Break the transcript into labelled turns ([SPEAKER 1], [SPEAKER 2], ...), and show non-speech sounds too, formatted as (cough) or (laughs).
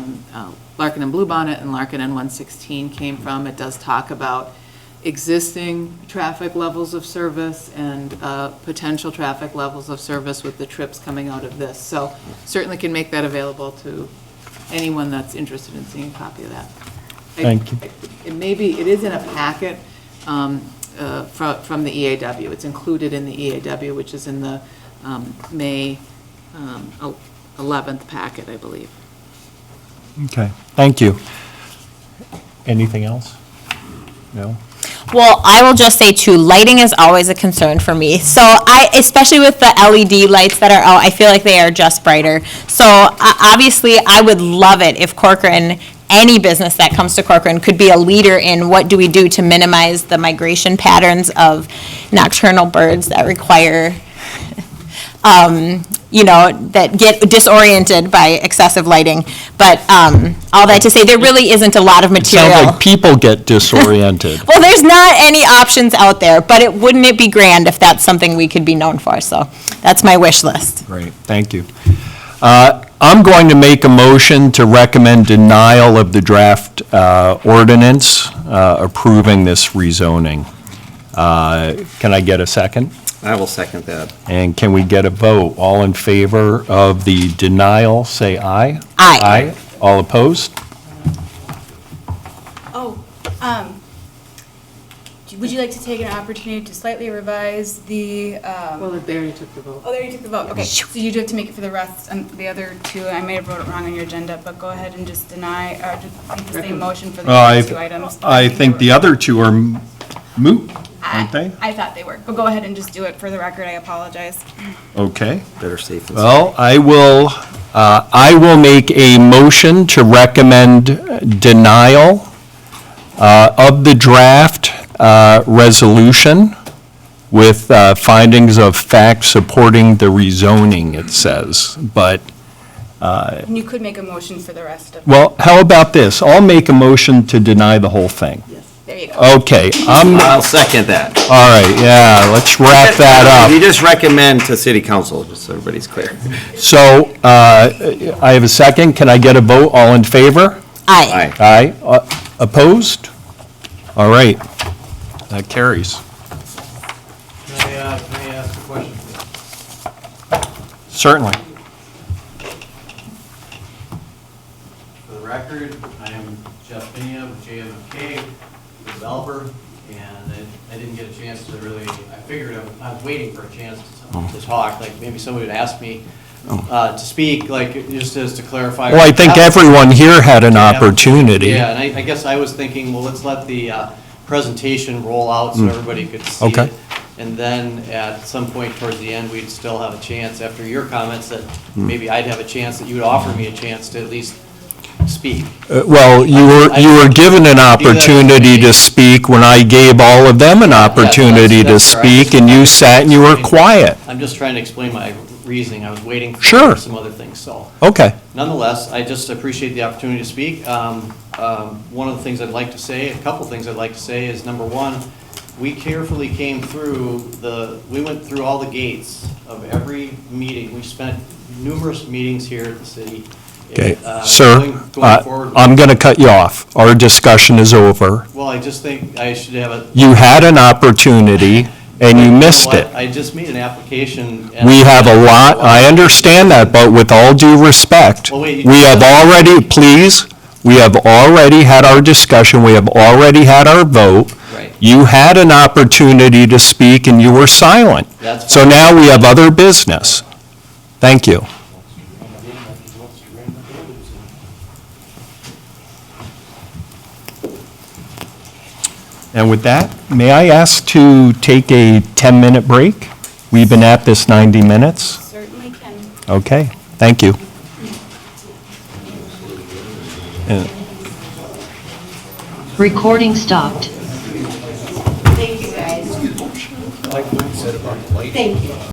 [SPEAKER 1] um, uh, Larkin and Bluebonnet and Larkin and 116 came from. It does talk about existing traffic levels of service and uh, potential traffic levels of service with the trips coming out of this. So certainly can make that available to anyone that's interested in seeing a copy of that. I-
[SPEAKER 2] Thank you.
[SPEAKER 1] It may be, it is in a packet um, uh, fro- from the EAW. It's included in the EAW, which is in the um, May um, el- 11th packet, I believe.
[SPEAKER 2] Okay, thank you. Anything else? No?
[SPEAKER 3] Well, I will just say too, lighting is always a concern for me. So I, especially with the LED lights that are out, I feel like they are just brighter. So uh, obviously, I would love it if Corcoran, any business that comes to Corcoran, could be a leader in what do we do to minimize the migration patterns of nocturnal birds that require, (laughs) um, you know, that get disoriented by excessive lighting. But um, all that to say, there really isn't a lot of material.
[SPEAKER 2] Sounds like people get disoriented.
[SPEAKER 3] Well, there's not any options out there, but it, wouldn't it be grand if that's something we could be known for? So that's my wish list.
[SPEAKER 2] Great, thank you. Uh, I'm going to make a motion to recommend denial of the draft uh, ordinance uh, approving this rezoning. Uh, Can I get a second?
[SPEAKER 4] I will second that.
[SPEAKER 2] And can we get a vote? All in favor of the denial, say aye.
[SPEAKER 3] Aye.
[SPEAKER 2] Aye. All opposed?
[SPEAKER 5] Oh, um, do- would you like to take an opportunity to slightly revise the,
[SPEAKER 1] Well,
[SPEAKER 5] um,
[SPEAKER 1] they already took the vote.
[SPEAKER 5] oh, there you took the vote, okay. So you do have to make it for the rest, and the other two, I may have wrote it wrong on your agenda, but go ahead and just deny, or just make the same motion for the other two items.
[SPEAKER 2] other two are moot,
[SPEAKER 5] I I thought they were, but go ahead and just do it for the record, I apologize.
[SPEAKER 2] Okay.
[SPEAKER 4] Better safe than sorry.
[SPEAKER 2] Well, I will, uh, I will make a motion to recommend denial uh, of the draft uh, resolution with uh, findings of fact supporting the rezoning, it says. But,
[SPEAKER 5] And you could make a motion for the rest of,
[SPEAKER 2] well, how about this? I'll make a motion to deny the whole thing.
[SPEAKER 5] there you go.
[SPEAKER 2] Okay, I'm,
[SPEAKER 4] I'll second that.
[SPEAKER 2] all right, yeah, let's wrap that up.
[SPEAKER 4] You just recommend to city council, just so everybody's clear.
[SPEAKER 2] So uh, I have a second. Can I get a vote? All in favor?
[SPEAKER 3] Aye.
[SPEAKER 4] Aye.
[SPEAKER 2] Aye. Uh, Opposed? All right. That carries.
[SPEAKER 6] Can I, uh, can I ask a question?
[SPEAKER 2] Certainly.
[SPEAKER 6] For the record, I am Jeff Binion with JMFK, developer, and I- I didn't get a chance to really, I figured I- I was waiting for a chance
[SPEAKER 2] Oh.
[SPEAKER 6] to- to talk, like maybe somebody would ask me uh, to speak, like just as to clarify.
[SPEAKER 2] Well, I think everyone here had an opportunity.
[SPEAKER 6] Yeah, and I, I guess I was thinking, well, let's let the uh, presentation roll out so everybody could see
[SPEAKER 2] Mm. Okay.
[SPEAKER 6] it. And then at some point towards the end, we'd still have a chance, after your comments, that
[SPEAKER 2] Mm.
[SPEAKER 6] maybe I'd have a chance, that you would offer me a chance to at least speak.
[SPEAKER 2] Uh, Well, you were, you were given an opportunity to speak when I gave all of them an opportunity to speak, and you sat and you were quiet.
[SPEAKER 6] I'm just trying to explain my reasoning. I was waiting
[SPEAKER 2] Sure.
[SPEAKER 6] for some other things, so.
[SPEAKER 2] Okay.
[SPEAKER 6] Nonetheless, I just appreciate the opportunity to speak. Um, um, One of the things I'd like to say, a couple things I'd like to say is, number one, we carefully came through the, we went through all the gates of every meeting. We spent numerous meetings here at the city.
[SPEAKER 2] Okay.
[SPEAKER 6] Uh, going-
[SPEAKER 2] Sir,
[SPEAKER 6] going
[SPEAKER 2] uh,
[SPEAKER 6] forward-
[SPEAKER 2] I'm going to cut you off. Our discussion is over.
[SPEAKER 6] Well, I just think I should have a.
[SPEAKER 2] You had an opportunity, and you missed it.
[SPEAKER 6] I just made an application. and-
[SPEAKER 2] We have a lot, I understand that, but with all due respect,
[SPEAKER 6] Well, wait, you-
[SPEAKER 2] we have already, please, we have already had our discussion, we have already had our vote.
[SPEAKER 6] Right.
[SPEAKER 2] You had an opportunity to speak and you were silent.
[SPEAKER 6] That's
[SPEAKER 2] So
[SPEAKER 6] fine.
[SPEAKER 2] now we have other business. Thank you. And with that, may I ask to take a 10-minute break? We've been at this 90 minutes.
[SPEAKER 5] Certainly can.
[SPEAKER 2] Okay, thank you.
[SPEAKER 5] Mm-hmm.
[SPEAKER 2] And-
[SPEAKER 7] Recording stopped.
[SPEAKER 8] Thank you, guys. Like Lynn said about lighting. Thank you.